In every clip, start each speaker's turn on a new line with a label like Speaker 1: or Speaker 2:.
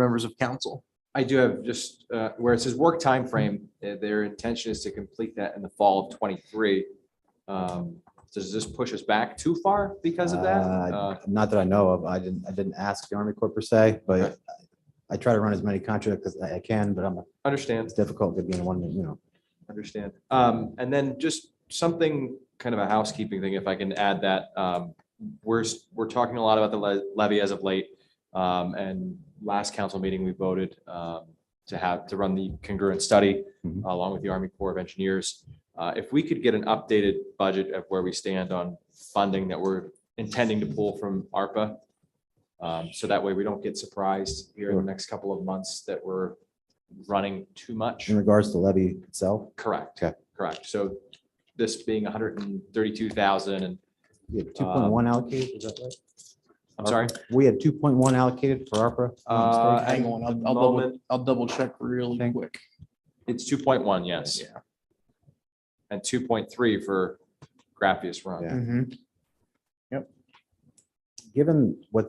Speaker 1: members of council.
Speaker 2: I do have just, uh, where it says work timeframe, eh, their intention is to complete that in the fall of twenty-three. Um, Does this push us back too far because of that?
Speaker 3: Uh,
Speaker 2: Uh,
Speaker 3: Not that I know of. I didn't, I didn't ask the Army Corps per se, but I try to run as many contracts as I I can, but I'm,
Speaker 2: Understand,
Speaker 3: it's difficult to be in one, you know.
Speaker 2: understand. Um, And then just something, kind of a housekeeping thing, if I can add that. um, We're, s- we're talking a lot about the le- levy as of late. um, And last council meeting, we voted um, to have, to run the congruent study
Speaker 3: Mhm.
Speaker 2: along with the Army Corps of Engineers. Uh, If we could get an updated budget of where we stand on funding that we're intending to pull from ARPA. um, So that way we don't get surprised here in the
Speaker 3: Sure.
Speaker 2: next couple of months that we're running too much.
Speaker 3: In regards to levy itself,
Speaker 2: Correct.
Speaker 3: Okay.
Speaker 2: Correct. So this being hundred and thirty-two thousand and,
Speaker 3: we had two point one allocated, is that right? Uh-huh.
Speaker 2: I'm sorry.
Speaker 3: We had two point one allocated for ARPA. if I'm not
Speaker 2: Uh,
Speaker 3: mistaken.
Speaker 1: Hang on, I'll, I'll double,
Speaker 2: moment-
Speaker 1: I'll double check really
Speaker 3: Thank-
Speaker 1: quick.
Speaker 2: It's two point one, yes, and two point three for Grappius Run.
Speaker 3: Yeah.
Speaker 1: Mhm.
Speaker 3: Given what,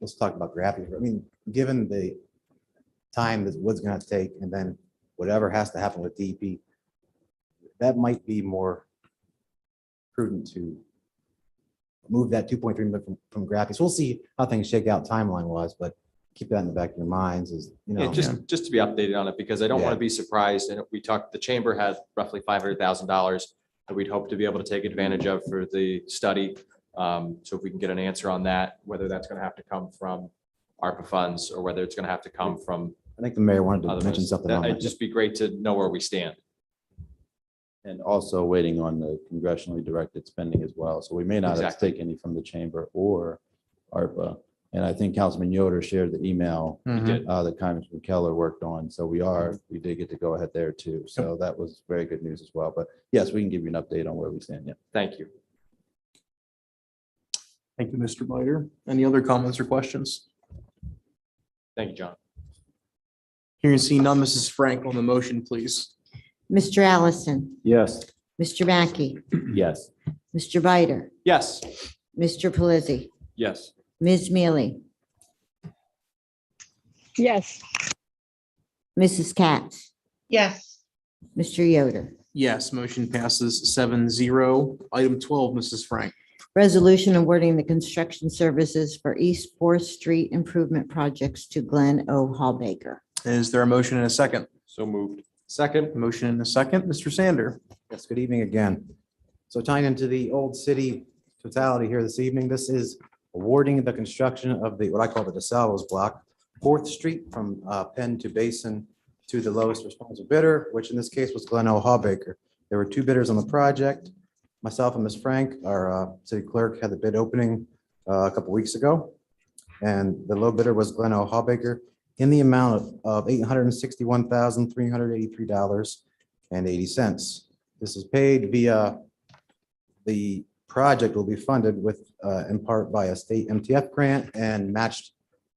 Speaker 3: let's talk about gravity. I mean, given the time that what's gonna take and then whatever has to happen with DEP, that might be more prudent to move that two point three million from, from graphics. We'll see how things shake out timeline wise, but keep that in the back of your minds is, you
Speaker 2: Yeah,
Speaker 3: know.
Speaker 2: just, just to be updated on it, because I don't want
Speaker 3: Yeah.
Speaker 2: to be surprised, and we talked, the chamber has roughly five hundred thousand dollars that we'd hope to be able to take advantage of for the study. Um, So if we can get an answer on that, whether that's going to have to come from ARPA funds, or whether it's going to have to come from
Speaker 3: I think the mayor wanted to
Speaker 2: other.
Speaker 3: mention something on
Speaker 2: It'd
Speaker 3: that.
Speaker 2: just be great to know where we stand.
Speaker 4: And also waiting on the congressionally directed spending as well. So we may not have to take any from the chamber or ARPA. And I think Councilman Yoder shared the email
Speaker 3: Mm-hmm.
Speaker 1: Mhm.
Speaker 4: uh, that Congressman Keller worked on. So we are, we did get to go ahead there too. So that was very good news as well. But yes, we can give you an update on where we stand. Yeah.
Speaker 2: Thank you.
Speaker 1: Thank you, Mr. Bider. Any other comments or questions?
Speaker 2: Thank you, John.
Speaker 1: Hearing seen none, Mrs. Frank on the motion, please.
Speaker 5: Mr. Allison,
Speaker 4: Yes.
Speaker 5: Mr. Mackey,
Speaker 4: Yes.
Speaker 5: Mr. Bider,
Speaker 2: Yes.
Speaker 5: Mr. Pelisi,
Speaker 2: Yes.
Speaker 5: Ms. Mealy,
Speaker 6: Yes.
Speaker 5: Mrs. Katz,
Speaker 6: Yes.
Speaker 5: Mr. Yoder.
Speaker 1: Yes, motion passes seven zero. Item twelve, Mrs. Frank.
Speaker 5: Resolution awarding the construction services for East Fourth Street Improvement Projects to Glenn O. Hallbaker.
Speaker 1: Is there a motion and a second?
Speaker 2: So moved. Second.
Speaker 1: Motion and a second, Mr. Sander.
Speaker 3: Yes, good evening again. So tying into the old city totality here this evening, this is awarding the construction of the, what I call the DeSalvo's block, Fourth Street from uh, Penn to Basin to the lowest responsible bidder, which in this case was Glenn O. Hawbaker. There were two bidders on the project. Myself and Ms. Frank, our uh, city clerk, had the bid opening uh, a couple weeks ago. And the low bidder was Glenn O. Hawbaker in the amount of eight hundred and sixty-one thousand, three hundred eighty-three dollars and eighty cents. This is paid via, the project will be funded with, uh, in part by a state MTF grant and matched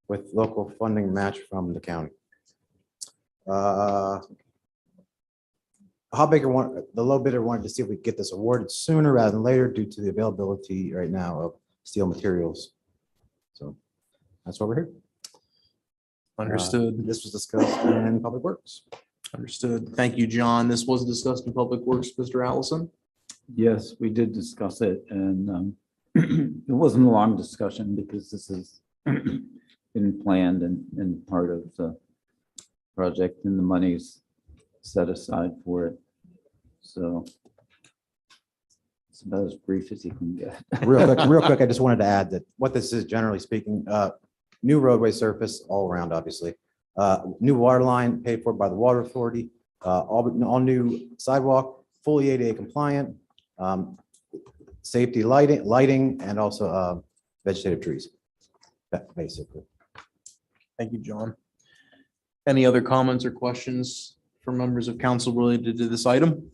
Speaker 3: with local funding match from the county. Uh, Hobbaker want, the low bidder wanted to see if we could get this awarded sooner rather than later due to the availability right now of steel materials. So that's why we're here.
Speaker 1: Uh, Understood.
Speaker 3: This was discussed in Public Works.
Speaker 1: Understood. Thank you, John. This was discussed in Public Works, Mr. Allison.
Speaker 7: Yes, we did discuss it and um, it wasn't a long discussion because this has been planned and, and part of the project and the money's set aside for it. So it's about as brief as you can get.
Speaker 3: Real quick, real quick, I just wanted to add that what this is generally speaking, uh, new roadway surface all around, obviously. Uh, new water line paid for by the water authority, uh, all, all new sidewalk, fully ADA compliant. Um, safety lighting, lighting, and also, uh, vegetative trees. That basically.
Speaker 1: Thank you, John. Any other comments or questions from members of council related to this item?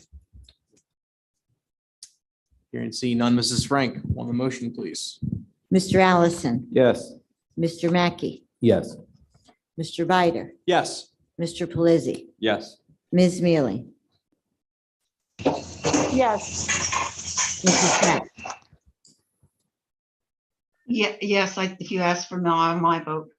Speaker 1: Hearing and seeing none, Mrs. Frank, on the motion, please.
Speaker 5: Mr. Allison,
Speaker 7: Yes.
Speaker 5: Mr. Mackey,
Speaker 7: Yes.
Speaker 5: Mr. Bider,
Speaker 2: Yes.
Speaker 5: Mr. Pelisi,
Speaker 2: Yes.
Speaker 5: Ms. Mealy,
Speaker 6: Yes.
Speaker 5: Mrs. Katz,
Speaker 8: Yeah, yes, I, if you ask for my, my vote,